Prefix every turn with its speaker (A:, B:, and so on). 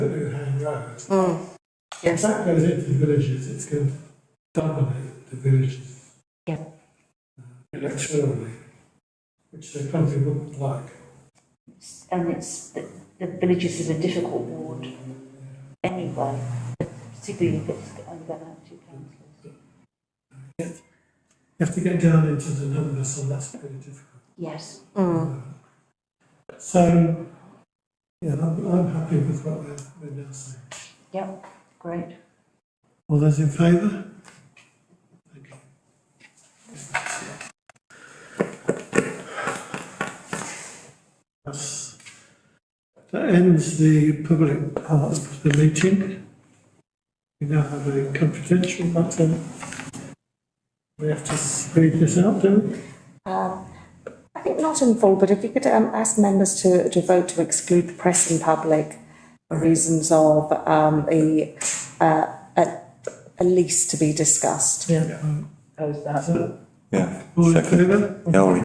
A: road. If
B: Mm. Yes,
A: that goes into the villages, it's going to dominate the villages. Uh,
B: Yeah.
A: Electorally, which the country wouldn't like.
B: and it's, the the villages is a difficult ward anyway, particularly if it's only going to have two councillors.
A: You have to get down into the numbers, and that's very difficult.
B: Yes.
A: So, yeah, I'm, I'm happy with what they're, they're now saying.
B: Yep, great.
A: All those in favour? Thank you. That's- That ends the public part of the meeting. We now have a confidential matter. We have to read this out, do we?
C: I think not in full, but if you could um, ask members to, to vote to exclude the press and public for reasons of um, a, uh, a, a lease to be discussed.
B: Yeah. Oppose that.
D: Yeah,
A: All in
D: second.
A: favour?
D: Yeah, all in